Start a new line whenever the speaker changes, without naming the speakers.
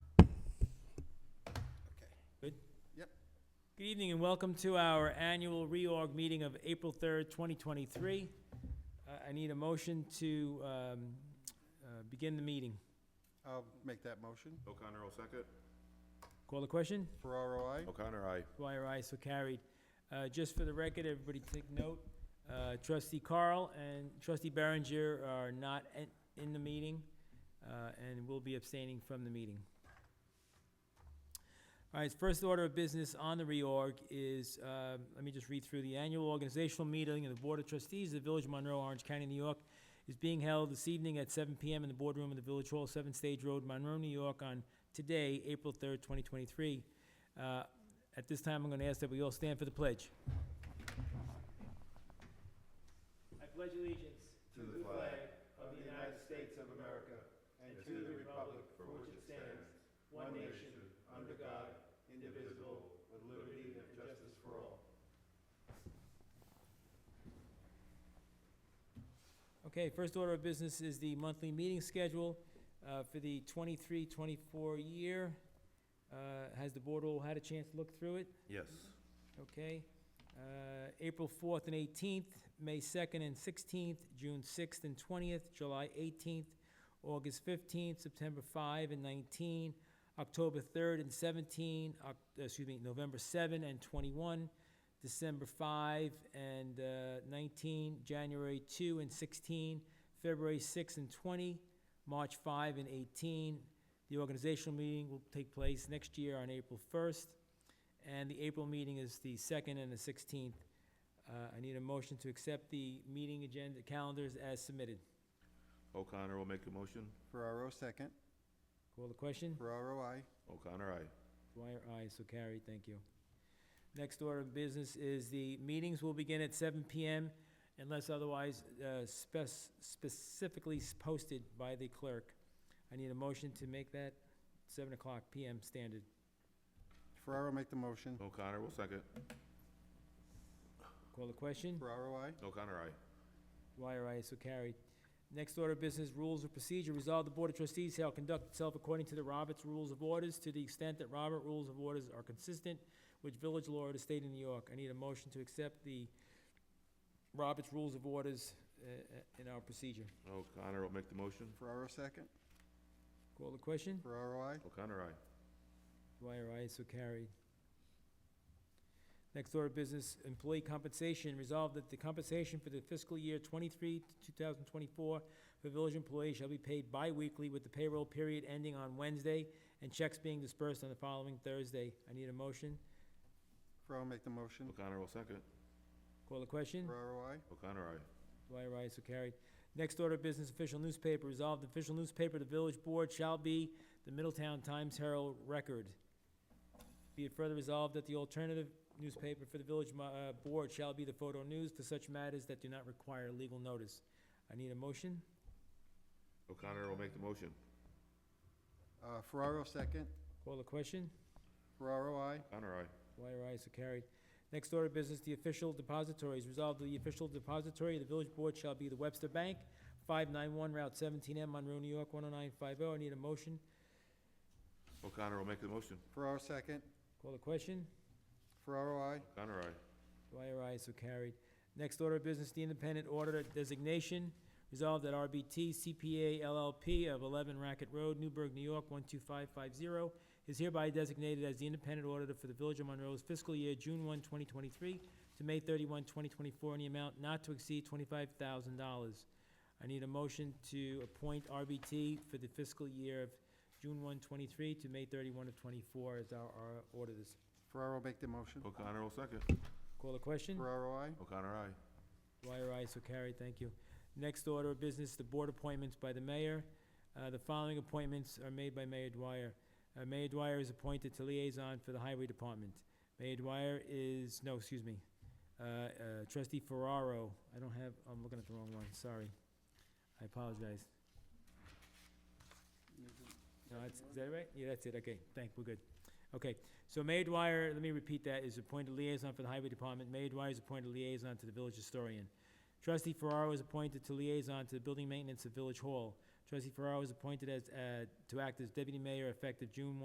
Yep.
Good evening and welcome to our annual reorg meeting of April 3rd, 2023. Uh, I need a motion to um, uh, begin the meeting.
I'll make that motion.
O'Connor will second.
Call the question?
Ferraro, I.
O'Connor, aye.
Dwyer, aye, so carried. Uh, Just for the record, everybody take note, uh, trustee Carl and trustee Berenger are not en- in the meeting uh, and will be abstaining from the meeting. All right, first order of business on the reorg is, uh, let me just read through, the annual organizational meeting of the Board of Trustees of the Village of Monroe, Orange County, New York, is being held this evening at 7 PM in the boardroom of the Village Hall, 7 Stage Road, Monroe, New York, on today, April 3rd, 2023. Uh, at this time, I'm going to ask that we all stand for the pledge. I pledge allegiance
To the flag
of the United States of America and to the republic for which it stands, one nation, under God, indivisible, with liberty and justice for all. Okay, first order of business is the monthly meeting schedule uh, for the 23-24 year. Uh, Has the board all had a chance to look through it?
Yes.
Okay. Uh, April 4th and 18th, May 2nd and 16th, June 6th and 20th, July 18th, August 15th, September 5 and 19, October 3rd and 17, Oc- uh, excuse me, November 7 and 21, December 5 and uh, 19, January 2 and 16, February 6 and 20, March 5 and 18. The organizational meeting will take place next year on April 1st. And the April meeting is the second and the sixteenth. Uh, I need a motion to accept the meeting agenda calendars as submitted.
O'Connor will make the motion.
Ferraro, second.
Call the question?
Ferraro, I.
O'Connor, aye.
Dwyer, aye, so carried, thank you. Next order of business is the meetings will begin at seven PM unless otherwise uh, spec- specifically s- posted by the clerk. I need a motion to make that seven o'clock PM standard.
Ferraro, make the motion.
O'Connor will second.
Call the question?
Ferraro, I.
O'Connor, aye.
Dwyer, aye, so carried. Next order of business, rules of procedure. Resolve the Board of Trustees shall conduct itself according to the Roberts Rules of Orders to the extent that Robert Rules of Orders are consistent with village law of the state of New York. I need a motion to accept the Roberts Rules of Orders uh, uh, in our procedure.
O'Connor will make the motion.
Ferraro, second.
Call the question?
Ferraro, I.
O'Connor, aye.
Dwyer, aye, so carried. Next order of business, employee compensation. Resolved that the compensation for the fiscal year twenty-three to two thousand twenty-four for village employees shall be paid bi-weekly with the payroll period ending on Wednesday and checks being dispersed on the following Thursday. I need a motion.
Ferraro, make the motion.
O'Connor will second.
Call the question?
Ferraro, I.
O'Connor, aye.
Dwyer, aye, so carried. Next order of business, official newspaper, resolved, the official newspaper of the village board shall be the Middletown Times Herald Record. Be it further resolved that the alternative newspaper for the village, mo- uh, board shall be the Photo News for such matters that do not require legal notice. I need a motion.
O'Connor will make the motion.
Uh, Ferraro, second.
Call the question.
Ferraro, I.
O'Connor, aye.
Dwyer, aye, so carried. Next order of business, the official depositories. Resolved, the official depository of the village board shall be the Webster Bank, 591 Route 17M, Monroe, New York, 10950. I need a motion.
O'Connor will make the motion.
Ferraro, second.
Call the question.
Ferraro, I.
O'Connor, aye.
Dwyer, aye, so carried. Next order of business, the independent auditor designation. Resolved that RBT CPA LLP of 11 Racket Road, Newburgh, New York, 12550, is hereby designated as the independent auditor for the Village of Monroe's fiscal year June 1, 2023 to May 31, 2024, in the amount not to exceed $25,000. I need a motion to appoint RBT for the fiscal year of June 1, 23 to May 31 of 24 as our our auditors.
Ferraro, make the motion.
O'Connor will second.
Call the question?
Ferraro, I.
O'Connor, aye.
Dwyer, aye, so carried, thank you. Next order of business, the board appointments by the mayor. Uh, The following appointments are made by Mayor Dwyer. Uh, Mayor Dwyer is appointed to liaison for the highway department. Mayor Dwyer is, no, excuse me, uh, uh, trustee Ferraro, I don't have, I'm looking at the wrong one, sorry. I apologize. No, that's, is that right? Yeah, that's it, okay, thank, we're good. Okay, so Mayor Dwyer, let me repeat that, is appointed liaison for the highway department. Mayor Dwyer is appointed liaison to the village historian. Trustee Ferraro is appointed to liaison to the building maintenance of Village Hall. Trustee Ferraro is appointed as, uh, to act as deputy mayor effective June